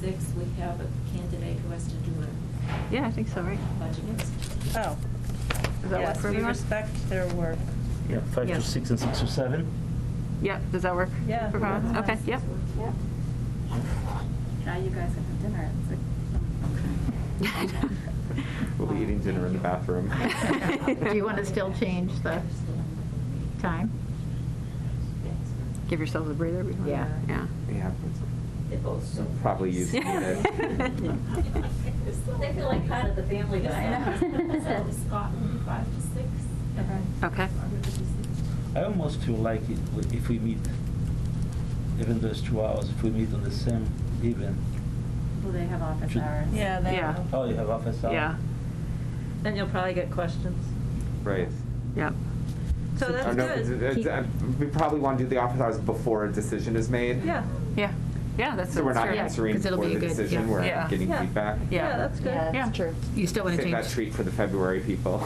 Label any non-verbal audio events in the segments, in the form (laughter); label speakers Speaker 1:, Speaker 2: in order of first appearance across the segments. Speaker 1: six, we have a candidate who has to do a
Speaker 2: Yeah, I think so, right?
Speaker 1: budget. Uh,
Speaker 3: Oh.
Speaker 2: Does that work
Speaker 3: Yes,
Speaker 2: for
Speaker 3: we
Speaker 2: everyone?
Speaker 3: respect their work.
Speaker 4: Yeah, five
Speaker 2: Yeah.
Speaker 4: to six and six to seven.
Speaker 2: Yeah, does that work?
Speaker 3: Yeah.
Speaker 2: For everyone? Okay, yeah.
Speaker 5: Yep. Now you guys can have dinner. It's
Speaker 6: (laughs) We'll be eating dinner in the bathroom.
Speaker 5: like- (laughs) Do you want to still change the time?
Speaker 2: Give yourselves a breather. everyone.
Speaker 5: Yeah.
Speaker 2: Yeah.
Speaker 6: Yeah,
Speaker 1: They both so.
Speaker 6: (laughs) probably
Speaker 5: (laughs)
Speaker 6: use it.
Speaker 1: They feel like part of the family
Speaker 5: I
Speaker 1: now.
Speaker 5: know.
Speaker 1: (laughs) So Scott will be five to six.
Speaker 2: Okay.
Speaker 4: I almost feel like it, w- if we meet, even though it's two hours, if we meet on the same event.
Speaker 5: Well, they have office
Speaker 4: Should-
Speaker 5: hours.
Speaker 3: Yeah, they
Speaker 2: Yeah.
Speaker 3: will.
Speaker 4: Oh, you have office hours?
Speaker 2: Yeah,
Speaker 3: And you'll probably get questions.
Speaker 6: Right.
Speaker 2: yeah.
Speaker 3: So
Speaker 6: Oh,
Speaker 3: that's
Speaker 6: no, th-
Speaker 3: good.
Speaker 6: th- th- We probably want to do the office hours before a decision is made.
Speaker 3: Yeah,
Speaker 2: Yeah, yeah, that's.
Speaker 6: So we're not
Speaker 2: fair.
Speaker 5: Yeah,
Speaker 6: answering
Speaker 5: 'cause it'll
Speaker 6: for
Speaker 5: be
Speaker 6: the
Speaker 5: a good-
Speaker 6: decision,
Speaker 5: yeah.
Speaker 6: we're
Speaker 2: Yeah.
Speaker 6: getting
Speaker 3: Yeah.
Speaker 6: feedback.
Speaker 3: yeah,
Speaker 2: Yeah.
Speaker 3: that's good.
Speaker 2: Yeah. true.
Speaker 5: You still want to
Speaker 6: Save that
Speaker 5: change,
Speaker 6: treat for the February
Speaker 5: (laughs)
Speaker 6: people.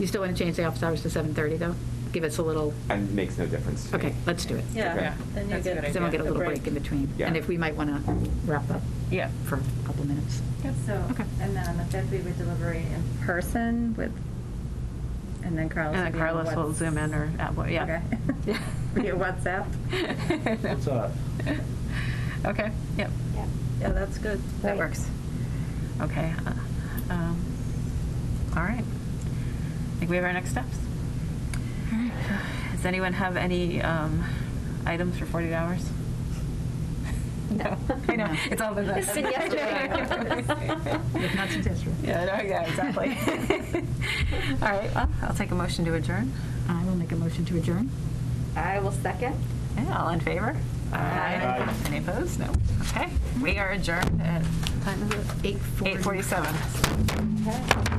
Speaker 5: you still want to change the office hours to 7:30, though? Give us a little,
Speaker 6: And it makes no difference to me.
Speaker 5: okay, let's do it.
Speaker 6: Okay.
Speaker 3: Yeah, then you
Speaker 5: Because
Speaker 3: get.
Speaker 5: then we'll get a little break in between.
Speaker 6: Yeah.
Speaker 5: And if we might want to wrap up
Speaker 2: (laughs) Yeah.
Speaker 5: for a couple minutes.
Speaker 7: So,
Speaker 5: Oh.
Speaker 2: Okay.
Speaker 7: and then on the fifth, we would deliberate in person with, and then Carlos.
Speaker 2: And then
Speaker 7: would be on
Speaker 2: Carlos will
Speaker 7: Whats-
Speaker 2: zoom in or, at what- yeah.
Speaker 7: Okay.
Speaker 2: (laughs)
Speaker 7: Via WhatsApp.
Speaker 4: What's up?
Speaker 2: Okay, yep,
Speaker 3: Yeah, that's good.
Speaker 2: that works. Okay. uh, um, All right. I think we have our next steps. All right. Does anyone have any um, items for 48 hours? No. (laughs) I know,
Speaker 5: No.
Speaker 2: it's all been that.
Speaker 1: It's been
Speaker 2: (laughs)
Speaker 1: yesterday.
Speaker 5: If not, it's yesterday.
Speaker 2: Yeah, no, yeah, exactly. All right, well, I'll take a motion to adjourn.
Speaker 5: I will make a motion to adjourn.
Speaker 7: I will second.
Speaker 2: Yeah, all in favor?
Speaker 4: Aye.
Speaker 2: Any opposed? No. Okay, we are adjourned at
Speaker 5: Time is it? 8:40.
Speaker 2: 8:47.